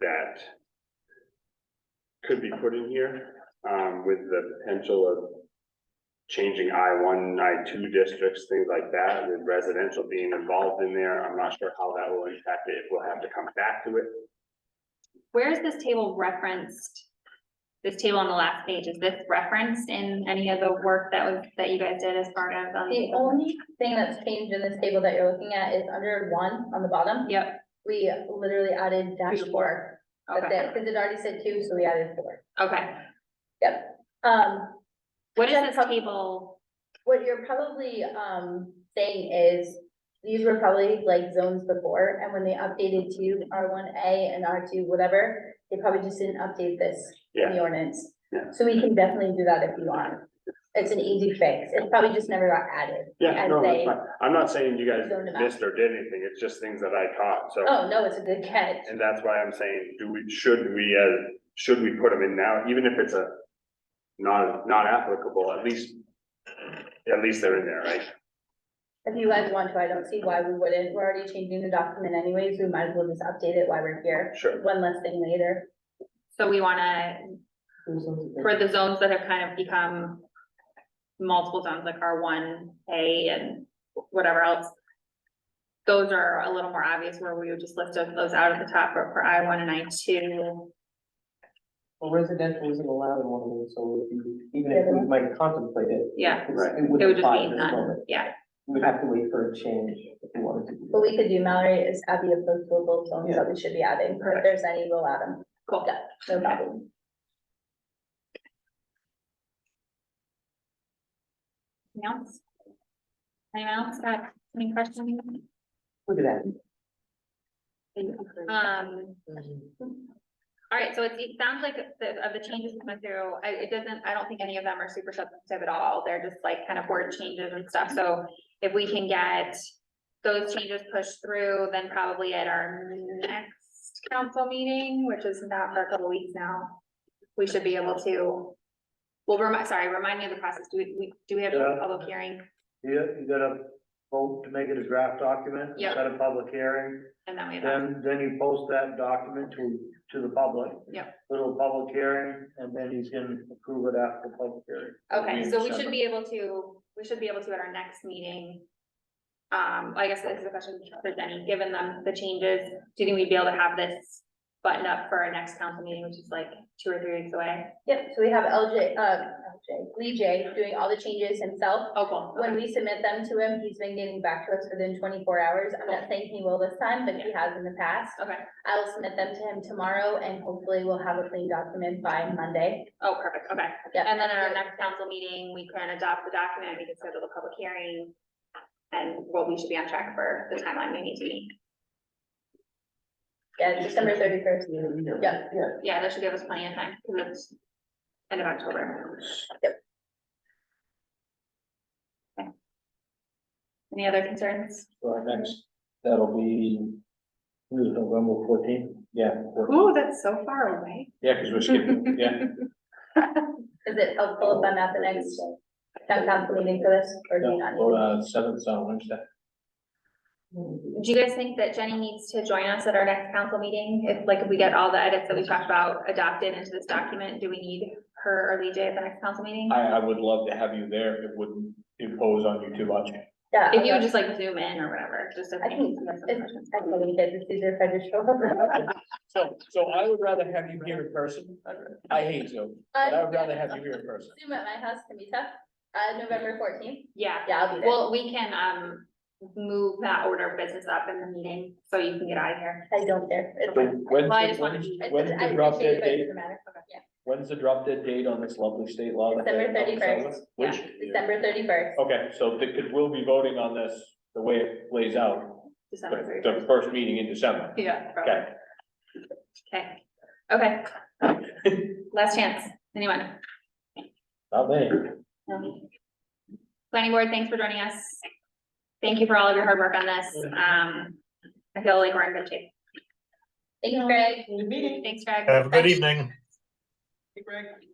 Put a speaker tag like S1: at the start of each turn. S1: that could be put in here, um, with the potential of changing I one, I two districts, things like that, with residential being involved in there. I'm not sure how that will impact it, if we'll have to come back to it.
S2: Where is this table referenced? This table on the last page, is this referenced in any of the work that was, that you guys did as part of? um,
S3: The only thing that's changed in this table that you're looking at is under one on the bottom,
S2: Yep,
S3: we literally added dash
S2: Two.
S3: four. That's
S2: okay,
S3: it, because it already said two, so we added four.
S2: okay.
S3: Yep. Um,
S2: What is
S3: Then
S2: this
S3: prob-
S2: table?
S3: what you're probably, um, saying is, these were probably like zones before, and when they updated to R one A and R two, whatever, they probably just didn't update this in the ordinance.
S1: Yeah.
S3: So we can definitely do that if you want. It's an easy fix. It probably just never got added.
S1: Yeah,
S3: as
S1: no, that's
S3: they-
S1: fine. I'm not saying you guys
S3: Zoned them out.
S1: missed or did anything, it's just things that I caught, so.
S3: Oh, no, it's a good catch.
S1: And that's why I'm saying, do we, should we, uh, should we put them in now, even if it's a non, not applicable, at least, at least they're in there, right?
S3: If you guys want to, I don't see why we wouldn't. We're already changing the document anyways. We might as well just update it while we're here.
S1: Sure.
S3: One less thing later.
S2: So we wanna, for the zones that have kind of become multiple zones, like R one, A and whatever else. Those are a little more obvious where we would just list those- those out at the top, but for I one and I two,
S4: Well, residential isn't allowed in one of those, so if you- even if we might contemplate it.
S2: yeah,
S4: it's-
S1: Right.
S4: It
S2: it would
S4: wouldn't
S2: just
S4: apply
S2: be
S4: at this
S2: none,
S4: moment.
S2: yeah,
S4: We'd have to wait for a change if we wanted to. do
S3: What
S4: that.
S3: we could do, Mallory, is add the applicable zones that we should be adding. If there's any, we'll add them.
S2: cool.
S3: Yeah, no problem.
S2: Anyone else? Anyone else got any questions?
S4: Look at that.
S2: Um, all right, so it, it sounds like the, of the changes that went through, I, it doesn't, I don't think any of them are super substantive at all. They're just like kind of word changes and stuff. So if we can get those changes pushed through, then probably at our next council meeting, which is not for a couple weeks now, we should be able to, well, remind, sorry, remind me of the process. Do we- we, do we have a
S5: Yeah.
S2: public hearing?
S5: You, you gotta vote to make it a draft document,
S2: Yeah.
S5: set a public hearing,
S2: And then we have.
S5: then, then you post that document to, to the public.
S2: Yeah.
S5: Little public hearing, and then he's gonna approve it after public hearing.
S2: Okay,
S5: in
S2: so we
S5: December.
S2: should be able to, we should be able to at our next meeting. Um, I guess this is a question for Jenny, given them the changes, do you think we'd be able to have this buttoned up for our next council meeting, which is like two or three weeks away?
S3: Yep, so we have LJ, uh, LJ, Lee J doing all the changes himself.
S2: Oh, cool.
S3: When we submit them to him, he's been getting back to us within twenty-four hours. I'm not saying he will this time, but he has in the past.
S2: Okay,
S3: I will submit them to him tomorrow and hopefully we'll have a clean document by Monday.
S2: oh, perfect, okay.
S3: Yep.
S2: And then at our next council meeting, we can adopt the document, we can schedule the public hearing. And what we should be on track for the timeline we need to meet.
S3: Yeah, December thirty-first. Yeah.
S4: Yeah.
S2: Yeah, that should give us plenty of time, because it's end of October.
S3: Yep.
S2: Okay. Any other concerns?
S5: So our next, that'll be, who's November fourteenth? Yeah.
S2: Ooh, that's so far away.
S5: Yeah, cause we're
S2: skipping-
S5: yeah.
S3: Is it helpful if I'm at the next town council meeting for this or do you not? need me?
S5: uh, seventh on Wednesday.
S2: Do you guys think that Jenny needs to join us at our next council meeting? If, like, if we get all the edits that we talked about adopted into this document, do we need her or Lee J at the next council meeting?
S6: I, I would love to have you there. It wouldn't impose on you too much.
S3: Yeah.
S2: If you would
S3: okay.
S2: just like zoom in or whatever, just. so
S3: I think
S2: we have some
S3: it's,
S2: questions.
S3: I think we did, it's easier if I just show up.
S6: So, so I would rather have you here in person. I hate Zoom, but I would rather have you here in person.
S3: Zoom at my house can be tough. Uh, November fourteenth.
S2: Yeah.
S3: Yeah, I'll be there.
S2: Well, we can, um, move that order of business up in the meeting, so you can get out of here.
S3: I don't care. It's
S6: So
S3: fine.
S6: when's,
S2: Well, I just
S6: the-
S2: wanted
S6: when's,
S2: to.
S3: I-
S6: when's
S3: I
S6: the drop
S3: appreciate it,
S6: dead
S3: but it
S6: date?
S3: doesn't matter.
S6: When's the drop dead date on this lovely state law? that they
S3: December
S6: have on
S3: 31st.
S6: Which,
S3: December thirty-first.
S6: okay, so the, cause we'll be voting on this the way it plays out,
S2: December
S6: the,
S2: 31st.
S6: the first meeting in December.
S2: Yeah. probably.
S6: Okay,
S2: Okay, okay. Last chance, anyone?
S6: not me.
S2: No. Planning board, thanks for joining us. Thank you for all of your hard work on this. Um, I feel like we're in good shape.
S3: Thanks, Greg.
S4: Good meeting.
S2: Thanks, Greg.
S7: Have a good evening.
S4: Hey, Greg.